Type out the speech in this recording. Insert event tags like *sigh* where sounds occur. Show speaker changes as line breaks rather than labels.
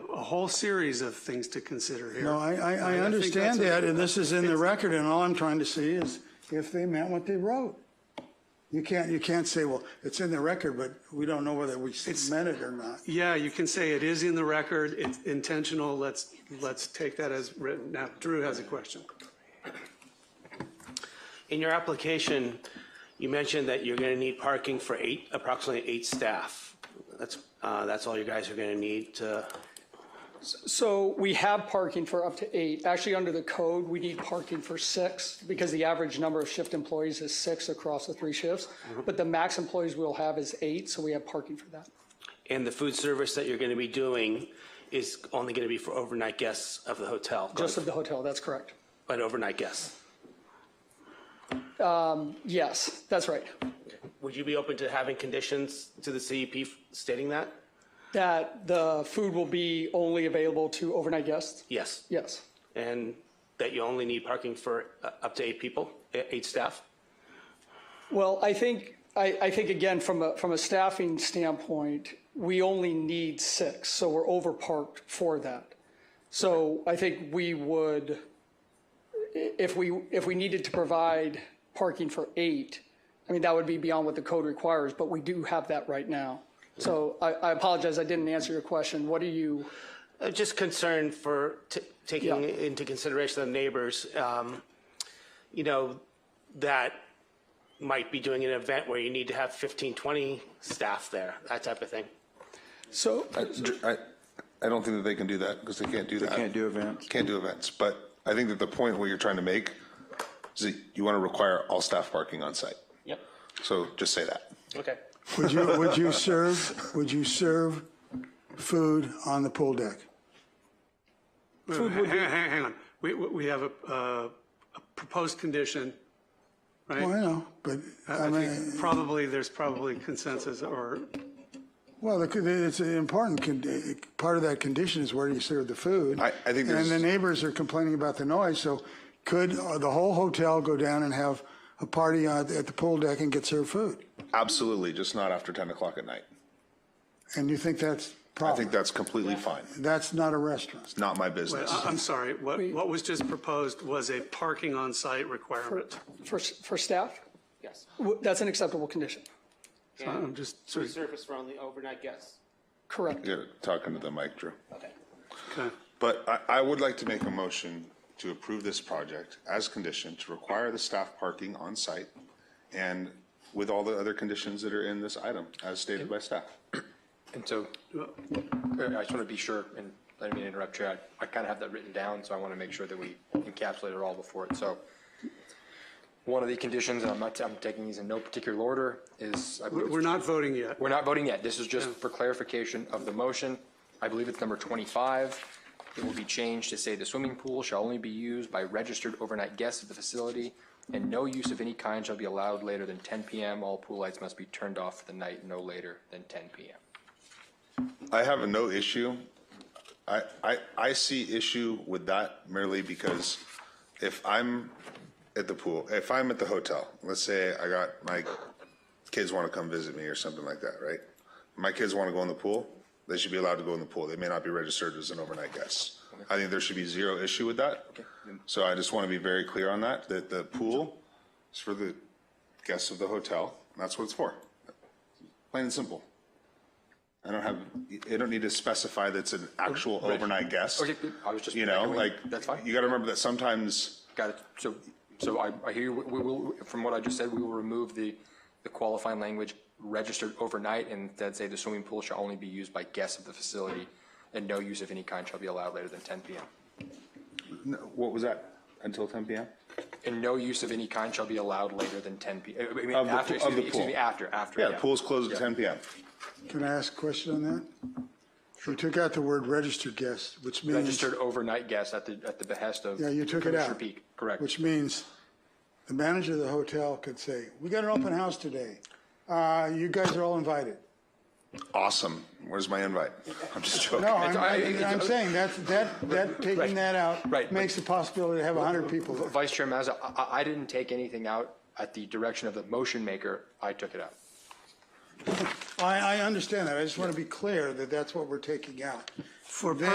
a whole series of things to consider here.
No, I, I, I
think
understand
that's a-
that, and this is in the record, and all I'm trying to see is if they meant what they wrote. You can't, you can't say, well, it's in the record, but we don't know whether we meant it or not.
Yeah, you can say it is in the record, it's intentional, let's, let's take that as written. Now, Drew has a question.
In your application, you mentioned that you're going to need parking for eight, approximately eight staff. That's, uh, that's all you guys are going to need to,
So we have parking for up to eight. Actually, under the code, we need parking for six because the average number of shift employees is six across the three shifts. But the max employees we'll have is eight, so we have parking for that.
and the food service that you're going to be doing is only going to be for overnight guests of the hotel,
Just of the hotel, that's correct.
but overnight guests.
Yes, that's right.
Would you be open to having conditions to the CEP stating that?
That the food will be only available to overnight guests?
Yes.
Yes,
And that you only need parking for uh, up to eight people, eh, eight staff?
Well, I think, I, I think again, from a, from a staffing standpoint, we only need six, so we're overparked for that. So I think we would, i- if we, if we needed to provide parking for eight, I mean, that would be beyond what the code requires, but we do have that right now. So I, I apologize, I didn't answer your question. What are you,
Uh, Just concerned for t- taking
Yeah.
into consideration the neighbors, um, you know, that might be doing an event where you need to have 15, 20 staff there, that type of thing.
so,
I, I, I don't think that they can do that because they can't do that.
can't do events.
Can't do events, but I think that the point what you're trying to make is that you want to require all staff parking on site.
Yep.
So just say that.
Okay.
Would you, would you serve, would you serve food on the pool deck?
Hang on, hang hang on, we, we we have a, uh, a proposed condition, right?
Well, I know, but I
I
mean,
think probably, there's probably consensus or,
well, the- it's an important, con- uh, part of that condition is where you serve the food.
I- I think
And
there's-
the neighbors are complaining about the noise, so could uh, the whole hotel go down and have a party uh, at, at the pool deck and get served food?
Absolutely, just not after 10 o'clock at night.
And you think that's
I
proper?
think that's completely fine.
That's not a restaurant.
Not my business.
I- I'm sorry, what, what was just proposed was a parking on-site requirement.
for, s- for staff,
Yes.
w- that's an acceptable condition,
So I'm just sort of,
Surface for only overnight guests.
correct?
You're talking to the mic, Drew.
okay.
But I, I would like to make a motion to approve this project as conditioned to require the staff parking on site and with all the other conditions that are in this item as stated by staff.
And so, uh, I just want to be sure, and I didn't mean to interrupt you, I, I kind of have that written down, so I want to make sure that we encapsulate it all before it, so. One of the conditions, and I'm not, I'm taking these in no particular order, is. I
We're
believe it's-
we're not voting yet.
We're not voting yet, this is just for clarification of the motion. I believe it's number twenty-five. It will be changed to say the swimming pool shall only be used by registered overnight guests of the facility, and no use of any kind shall be allowed later than ten PM. All pool lights must be turned off for the night no later than ten PM.
I have no issue. I, I, I see issue with that merely because if I'm at the pool, if I'm at the hotel, let's say I got my kids want to come visit me or something like that, right? My kids want to go in the pool, they should be allowed to go in the pool. They may not be registered as an overnight guest. I think there should be zero issue with that. So I just want to be very clear on that, that the pool is for the guests of the hotel. and That's what it's for. Plain and simple. I don't have, I don't need to specify that it's an actual overnight guest.
Okay, good. I was just-
You know,
okay,
like,
that's fine.
you got to remember that sometimes,
Got it. So, so I, I hear, you. we will, from what I just said, we will remove the, the qualifying language registered overnight and instead say the swimming pool shall only be used by guests of the facility and no use of any kind shall be allowed later than ten PM.
no, what was that, until 10 PM?
And no use of any kind shall be allowed later than ten P, I mean,
Of the-
after,
of
excuse
the
me, excuse
pool.
me, after, after.
Yeah, the pool's closed at 10 PM.
Can I ask a question on that? You took out the word registered guest, which means.
Registered overnight guests at the, at the behest of.
Yeah, you took it
Commissioner
out.
Peak, correct.
Which means the manager of the hotel could say, we got an open house today. Uh, you guys are all invited.
Awesome. Where's my invite? *laughs* I'm just joking.
No, I'm,
It's- I- it's-
I'm saying that, that, that, taking
Right.
that
Right,
out
but-
makes the possibility to have hundred people there.
Vice Chair Mazza, I- I, I didn't take anything out at the direction of the motion maker. I took it out.
I, I understand that. I just want to be clear that that's what we're taking out.
For